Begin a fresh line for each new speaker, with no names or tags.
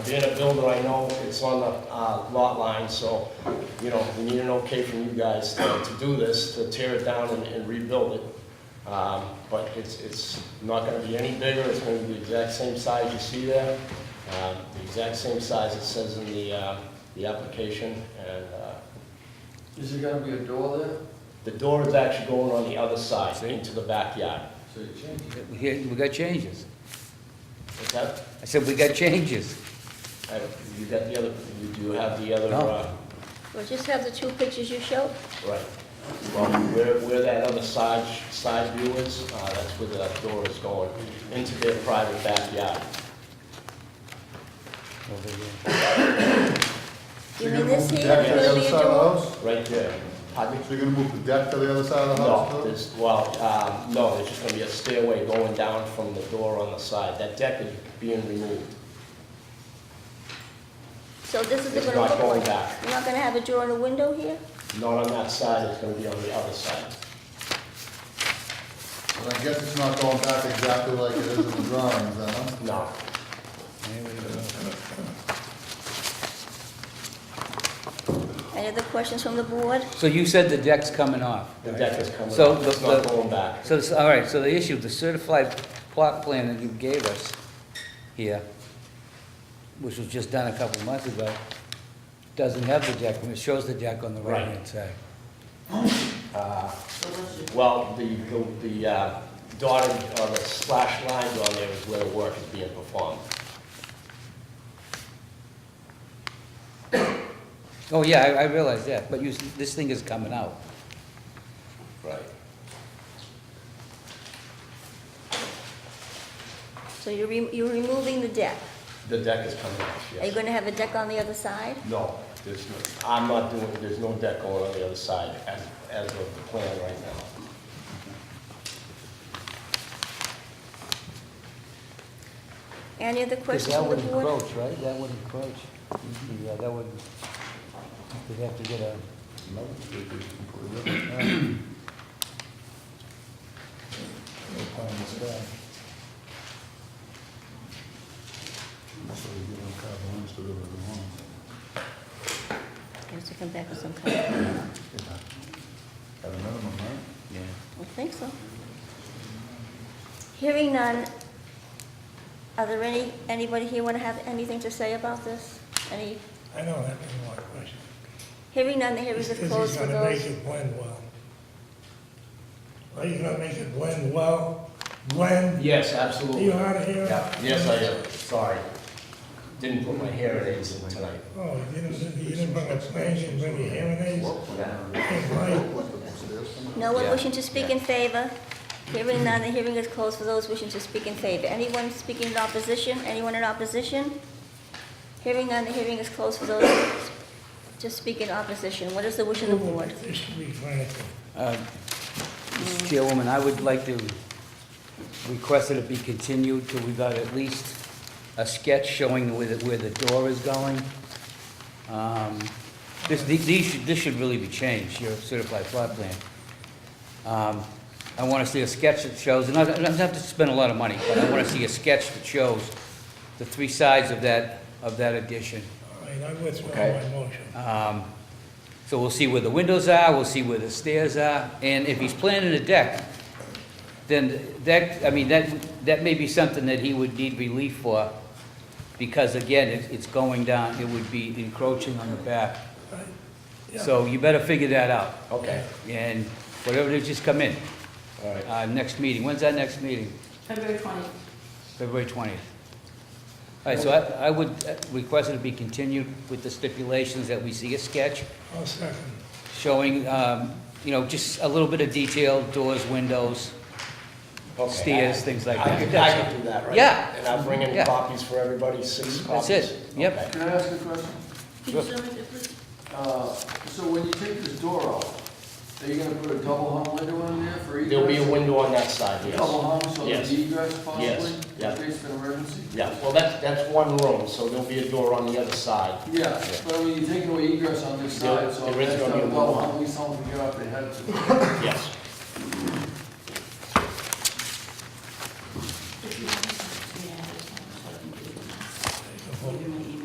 in a builder, I know it's on the uh, lot line, so, you know, we need an okay from you guys to to do this, to tear it down and- and rebuild it. Um, But it's, it's not gonna be any bigger, it's gonna be the exact same size you see there, um, the exact same size it says in the, uh, the application, and uh,
Is there gonna be a door there?
the door is actually going on the other side, into the backyard.
So you change it.
We had- we got changes.
Is that,
I said, we got changes.
I don't- you got the other, you do have the other,
No.
uh,
Well, just have the two pictures you showed.
Right. Well, where, where that other side, side view is, uh, that's where that door is going, into their private backyard.
Over here.
You mean this here
You're gonna move the deck
is
to the
gonna
other
be a
side of the
door?
house?
Right there. Pardon me?
So you're gonna move the deck to the other side of the house?
No,
too?
there's, well, um, no, there's just gonna be a stairway going down from the door on the side. That deck is being removed.
So this is
It's
gonna
not
look
going
like?
back.
You're not gonna have a door and a window here?
Not on that side, it's gonna be on the other side.
But I guess it's not going back exactly like it is in the drawings, huh?
No.
Any other questions from the board?
So you said the deck's coming off.
The deck is coming
So
up,
the-
it's not
the-
going back.
So, this- all right, so the issue, the certified plot plan that you gave us here, which was just done a couple of months ago, doesn't have the deck, and it shows the deck on the
Right.
right-hand side.
Well, the, the- the uh, dotted, or the slash lines on there is where the work is being performed.
Oh, yeah, I, I realize that, but you, s- this thing is coming out.
Right.
So you're, re- you're removing the deck.
The deck is coming off,
Are you
yes.
gonna have a deck on the other side?
No, there's no, I'm not doing, there's no deck going on the other side as, as of the plan right now.
Any other
'Cause
questions from the
That would
board?
encroach, right? That would encroach. Yeah, that would, they'd have to get a,
No, it's completely different. No pie in the sky. So you don't have lines to do what you want.
You have to come back with some kind of, I
Yeah. At a minimum, right?
don't think so. Hearing none, are there any, anybody here wanna have anything to say about this? Any,
I don't have any more questions.
hearing none, the hearing is
Because
closed
he's
for
gonna make
those.
it blend well. Are you gonna make it blend well? Blend,
Yes,
Are
absolutely.
you out of here?
Yes, I am, sorry. Didn't put my hair in it tonight.
Oh, you didn't, you didn't bring a plan, you didn't bring your hearing aids? Hey, Mike,
No one wishing to speak in favor? Hearing none, the hearing is closed for those wishing to speak in favor. Anyone speaking in opposition? Anyone in opposition? Hearing none, the hearing is closed for those to speak in opposition. What is the wish of the board?
This should be granted.
Uh, Mr. Chairwoman, I would like to request that it be continued till we got at least a sketch showing where the, where the door is going. Um, This, the- these, should- this should really be changed, your certified plot plan. Um, I want to see a sketch that shows, and I don't I don't have to spend a lot of money, but I want to see a sketch that shows the three sides of that, of that addition.
All right, I withdraw
Okay.
my motion.
Um, So we'll see where the windows are, we'll see where the stairs are, and if he's planning a deck, then that, I mean, that, that may be something that he would need relief for, because again, it- it's going down, it would be encroaching on the back.
Yeah.
So you better figure that out,
Okay,
and whatever, it is, just come in,
all right.
Uh, next meeting, when's our next meeting?
February twentieth.
February 20th. All right, so I, I would uh, request it to be continued with the stipulations that we see a sketch,
I'll second.
showing, um, you know, just a little bit of detail, doors, windows.
Okay.
Stairs, things like
I
that.
could, I could do that, right?
Yeah.
And I'm bringing
Yeah.
copies for everybody, six copies.
That's it. Yep.
Okay.
Can I ask a question?
Can you show me that, please?
Uh, so when you take this door off, are you gonna put a double hung window in there for egress?
There'll be a window on that side, yes.
Double hung, so
Yes.
there's egress possibly?
Yes, yeah.
In case of an emergency?
Yeah, well, that's, that's one room, so there'll be a door on the other side.
Yeah, but I mean, you take away egress on this
Yeah,
side, so
there is
that's
gonna
gonna
be a
double
wall.
hung, at least someone can get up their head.
Yes,